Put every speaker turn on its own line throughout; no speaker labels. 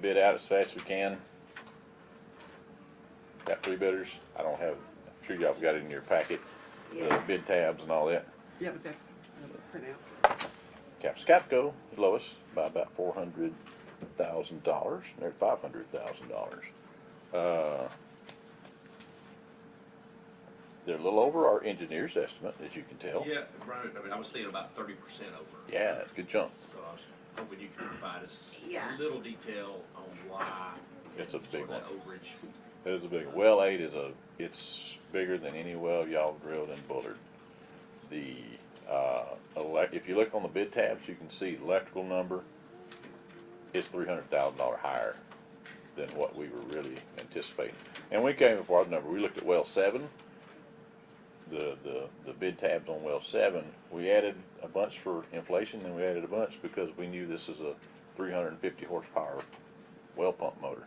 bid out as fast as we can. Got three bidders. I don't have, I'm sure y'all have got it in your packet, the
Yes.
bid tabs and all that.
Yeah, but that's uh, the printout.
Capscapco, is lowest by about four hundred thousand dollars, they're five hundred thousand dollars. Uh, They're a little over our engineer's estimate, as you can tell.
Yeah, right, I mean, I was seeing about thirty percent over.
Yeah, that's a good jump.
So I was hoping you could provide us
Yeah.
a little detail on why.
It's a big
sort of that
one.
Overage.
It is a big, well eight is a, it's bigger than any well y'all drilled in Bullard. The, uh, elec if you look on the bid tabs, you can see the electrical number is three hundred thousand dollar higher than what we were really anticipating. And we came up with our number, we looked at well seven, the, the, the bid tabs on well seven, we added a bunch for inflation, and we added a bunch because we knew this is a three hundred and fifty horsepower well pump motor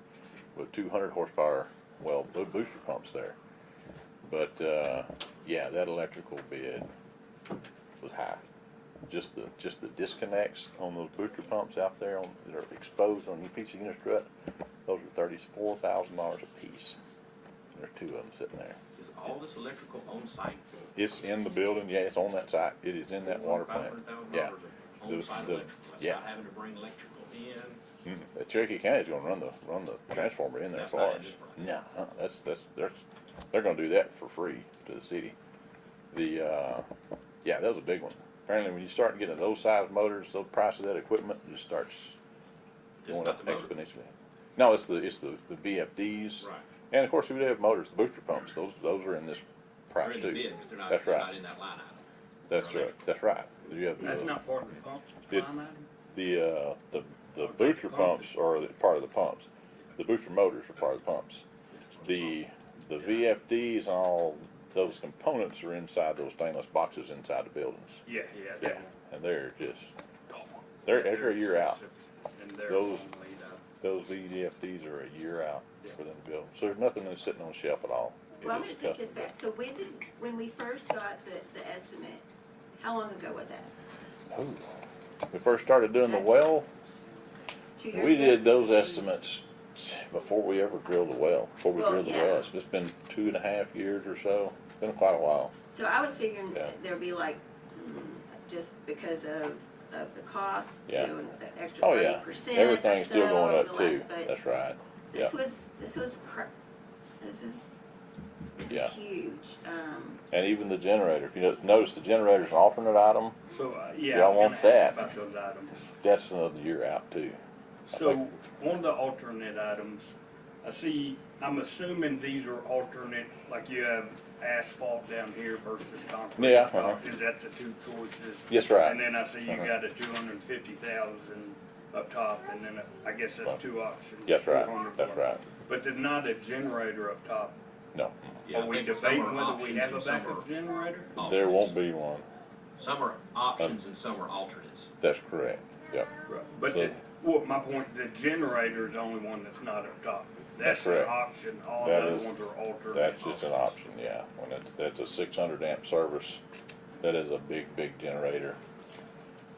with two hundred horsepower well bo- booster pumps there. But, uh, yeah, that electrical bid was high. Just the, just the disconnects on those booster pumps out there on, that are exposed on your piece of unit strut, those are thirty-four thousand dollars a piece. There are two of them sitting there.
Is all this electrical on site?
It's in the building, yeah, it's on that site, it is in that water plant, yeah.
Five
The-
hundred thousand dollars of on-site
the-
electrical, that's
yeah.
not having to bring electrical in.
Mm, uh, Cherokee County's gonna run the, run the transformer in there
Mm-hmm. That's
for
not in
ours.
this price.
No, uh, that's, that's, they're, they're gonna do that for free to the city. The, uh, yeah, that was a big one. Apparently, when you start getting those size motors, the price of that equipment just starts
Just
going
not
up
the motor.
exponentially. No, it's the, it's the, the VFDs.
Right.
And of course, we do have motors, the booster pumps, those, those are in this
They're
price
in
too.
the bid, but they're not,
That's
they're
right.
not in that line item.
That's
They're
right, that's right. You have
That's
the-
not part of the pump
Did-
line item?
The, uh, the, the
Okay,
booster
pump.
pumps are the- part of the pumps. The booster motors are part of the pumps. The, the VFDs and all those components are inside those stainless boxes inside the buildings.
Yeah, yeah.
Yeah,
that one.
and they're just, they're every year out.
expensive, And they're long
Those-
lead out.
Those VFDs are a year out
Yeah.
for them to build. So there's nothing that's sitting on the shelf at all. It
Well, I'm
is
gonna take this
custom
back. So when did, when we first got the, the estimate, how long ago was that?
built. Ooh. We first started doing the
That's-
well,
Two years ago?
we did those estimates before we ever drilled the well, before we
Well,
drilled the
Oh, yeah.
well. It's just been two and a half years or so. It's been quite a while.
So I was figuring
Yeah.
there'd be like, mm, just because of, of the cost, you
Yeah.
know, an extra
Oh,
thirty
yeah.
percent or
Everything's
so
still going
over the
up too.
last, but
That's right.
this
yeah.
was, this was cra- this is, this
Yeah.
is huge. Um,
And even the generator, if you no- notice the generator's an alternate item,
So, uh, yeah.
Y'all
I was
want
gonna ask
that.
About those items.
that's another year out too.
So, on the alternate items, I see, I'm assuming these are alternate, like you have asphalt down here versus concrete.
Yeah, uh-huh.
Is that the two choices?
Yes, right.
And then I see you
Uh-huh.
got a two hundred and fifty thousand up top, and then I guess that's two options.
That's right,
400.
that's right.
But there's not a generator up top.
No,
Yeah, I
Are we
think some
debating
are
whether we
options
have
and
a
some
backup
are
generator?
there
alternates.
won't be Um, one.
Some are options and some are alternates.
That's correct. Yep.
Right, But,
So-
the- well, my point, the generator is the only one that's not up top.
That's
That's an
correct.
option, all the
That
other
is-
ones are alternate.
That's just an option, yeah. When it's, that's a six hundred amp service, that is a big, big generator.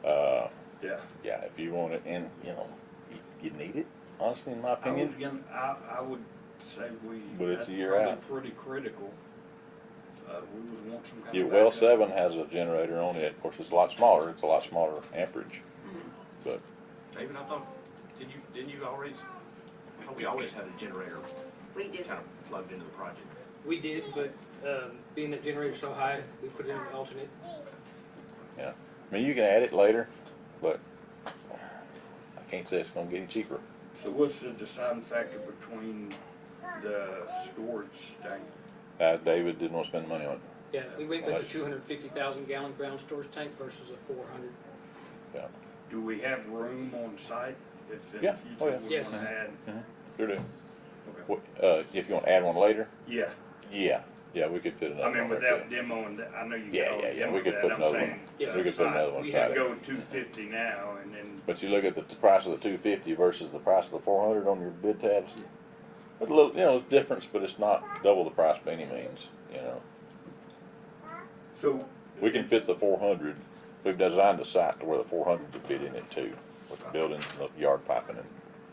Uh,
Yeah.
yeah, if you want it in, you know, you- you need it, honestly, in my
I was
opinion.
gonna, I, I would say we.
But it's a
that's
year
probably
out.
Pretty critical. Uh, we would want some kind of.
Your well
backup.
seven has a generator on it. Of course, it's a lot smaller. It's a lot smaller amperage.
Mm-hmm.
But
David, I thought, didn't you, didn't you always, I thought we always had a generator
we just,
kind of plugged into the project.
We did, but um, being that generator's so high, we put it in an alternate.
I mean, you can add it later, but I can't say it's gonna get any cheaper.
So what's the deciding factor between the storage tank?
Uh, David didn't want to spend money on it.
Yeah, we
Well,
went with
that's-
the two hundred fifty thousand gallon ground storage tank versus a four hundred.
Do we have room on site if in
Yeah.
the
Oh,
future we
yeah.
wanna add?
Sure do.
Okay.
What- Uh, if you want to add one later,
Yeah,
yeah, yeah, we could fit another
I
one.
mean,
there,
without
too.
demoing that, I know you.
Yeah,
got
yeah,
all
yeah, we
demoed
could
that,
put
I'm
another
saying
one.
Yeah,
We could put
outside,
another one
We
tied
could
in.
go two fifty now and then,
But you look at the t- price of the two fifty versus the price of the four hundred on your bid tabs. It's a little, you know, it's difference, but it's not double the price by any means. You know,
so.
we can fit the four hundred. We've designed the site to where the four hundred could fit in it too, with the buildings, and the yard piping, and